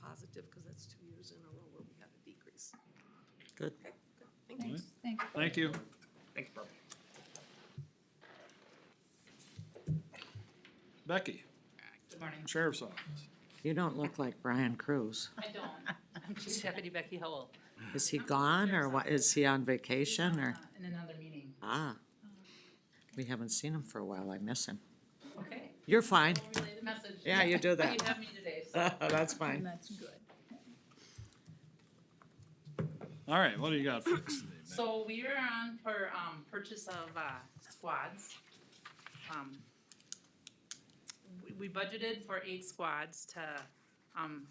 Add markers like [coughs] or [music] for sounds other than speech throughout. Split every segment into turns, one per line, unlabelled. effective because that's two years in a row where we had a decrease.
Good.
Okay, good. Thank you.
Alright.
Thanks.
Thank you.
Thanks, Bob.
Becky,
Good morning.
Sheriff's Office.
You don't look like Brian Cruz.
I don't. [laughs] I'm Chief Deputy Becky Howell.
Is he gone or what, is he on vacation or?
Uh, In another meeting.
Ah. We haven't seen him for a while. I miss him.
Okay.
You're fine. [laughs]
I'll relay the message.
Yeah, you do that.
[laughs] You have me today, so.
That's
And
fine.
that's good.
All right, what do you got for us today, Becky?
So we are on for, um, purchase of, uh, squads. Um, we, we budgeted for eight squads to, um,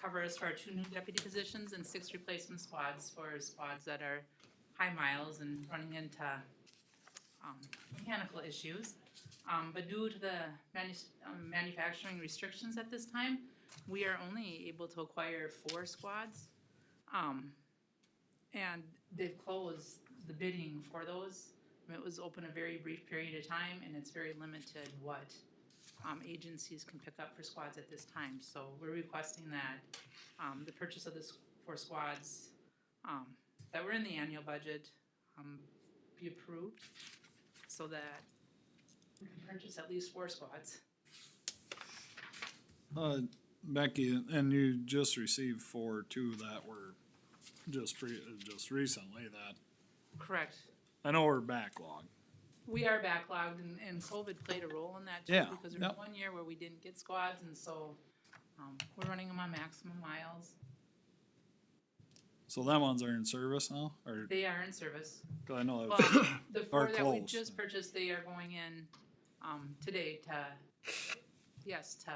cover us for our two new deputy positions and six replacement squads for squads that are high miles and running into, um, mechanical issues. Um, but due to the manu- um, manufacturing restrictions at this time, we are only able to acquire four squads. Um, and they've closed the bidding for those. I mean, It was open a very brief period of time, and it's very limited what um, agencies can pick up for squads at this time. So we're requesting that um, the purchase of this for squads um, that were in the annual budget um, be approved so that we can purchase at least four squads.
Uh, Becky, and you just received four, two that were just pre, uh, just recently that,
Correct.
I know we're backlog.
We are backlogged and, and COVID played a role in that
Yeah,
too, because there was
yep.
one year where we didn't get squads and so, um, we're running them on maximum miles.
So that ones are in service now, or,
They are
[coughs]
in service.
'cause I know
Well,
that was,
the four
Are
that we
closed.
just purchased, they are going in, um, today to, yes, to,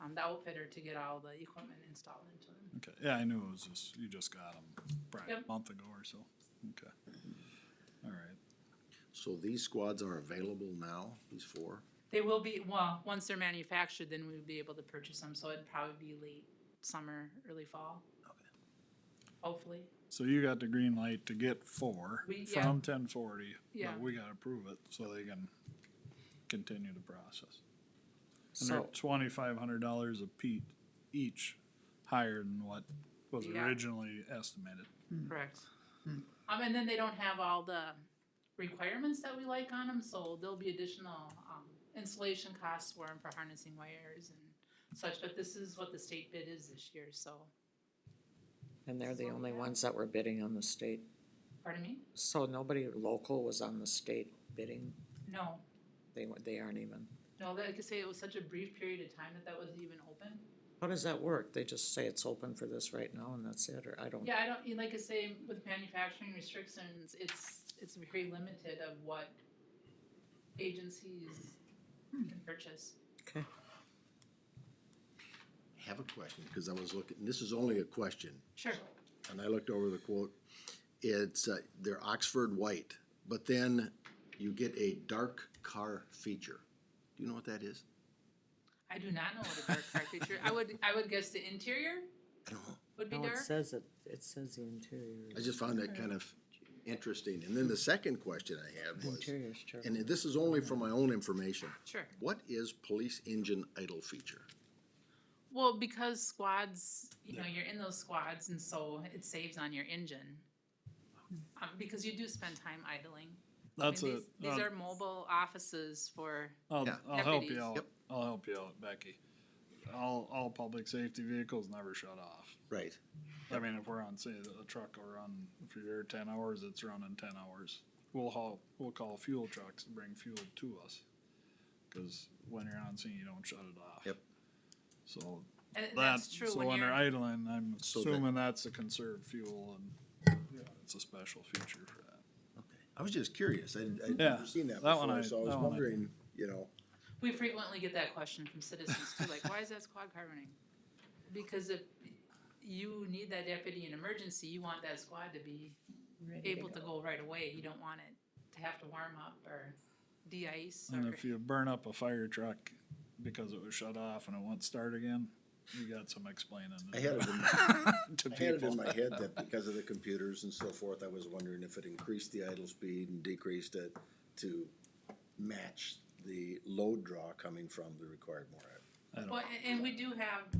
um, the outfitter to get all the equipment installed into them.
okay, yeah, I knew it was just, you just got them probably a
Yep.
month ago or so, okay. All right,
So these squads are available now, these four?
They will be, well, once they're manufactured, then we'll be able to purchase them, so it'd probably be late summer, early fall. Hopefully.
so you got the green light to get four
We- yeah.
from ten forty,
Yeah.
but we gotta approve it so they can continue the process. And they're
So,
twenty-five hundred dollars a pe- each, higher than what was
Yeah.
originally estimated.
Correct. Um, and then they don't have all the requirements that we like on them, so there'll be additional, um, installation costs for 'em for harnessing wires and such, but this is what the state bid is this year, so,
and they're the only ones that were bidding on the state.
pardon me?
So nobody local was on the state bidding?
No,
They, wa- they aren't even.
no, like I say, it was such a brief period of time that that was even open.
How does that work? They just say it's open for this right now and that's it, or I don't,
Yeah, I don't, you- like I say, with manufacturing restrictions, it's, it's very limited of what agencies can purchase.
okay.
Have a question, because I was looking, this is only a question,
Sure.
and I looked over the quote. It's, uh, they're Oxford white, but then you get a dark car feature. Do you know what that is?
I do not know what a dark car feature, I would, I would guess the interior
I don't know.
would
Oh,
be
No, it
dark.
says it, it says the interior,
I just found that kind of interesting. And then the second question I had was,
interior's true.
and this is only for my own information.
Sure.
What is police engine idle feature?
Well, because squads, you know, you're in those squads and so it saves on your engine. Um, because you do spend time idling. I mean,
That's um, it.
these- These are mobile offices for,
I'll,
Yeah.
I'll help
Deputies.
you out.
Yep.
I'll help you out, Becky. All, all public safety vehicles never shut off.
Right.
I mean, if we're on, say, a truck will run, if you're ten hours, it's running ten hours. We'll haul, we'll call fuel trucks to bring fuel to us. Cause when you're on scene, you don't shut it off.
Yep.
So
and
that,
that's true
so
when
when they're
you're,
idling, I'm
So that-
assuming that's to conserve fuel and, yeah, it's a special feature for that.
Okay. I was just curious. I, I'd
Yeah,
never seen that
that one
before,
I-
so I was
that one I-
wondering, you know.
we frequently get that question from citizens too, like, why is that squad car running? Because if you need that deputy in emergency, you want that squad to be able to go right away. You don't want it to have to warm up or de-ice or.
And if you burn up a fire truck because it was shut off and it won't start again, you got some explaining
I
to
had
do
it in, [laughs]
to
I had it in
people.
my head that because of the computers and so forth, I was wondering if it increased the idle speed and decreased it to match the load draw coming from the required motor.
I don't-
Well, a- and we do have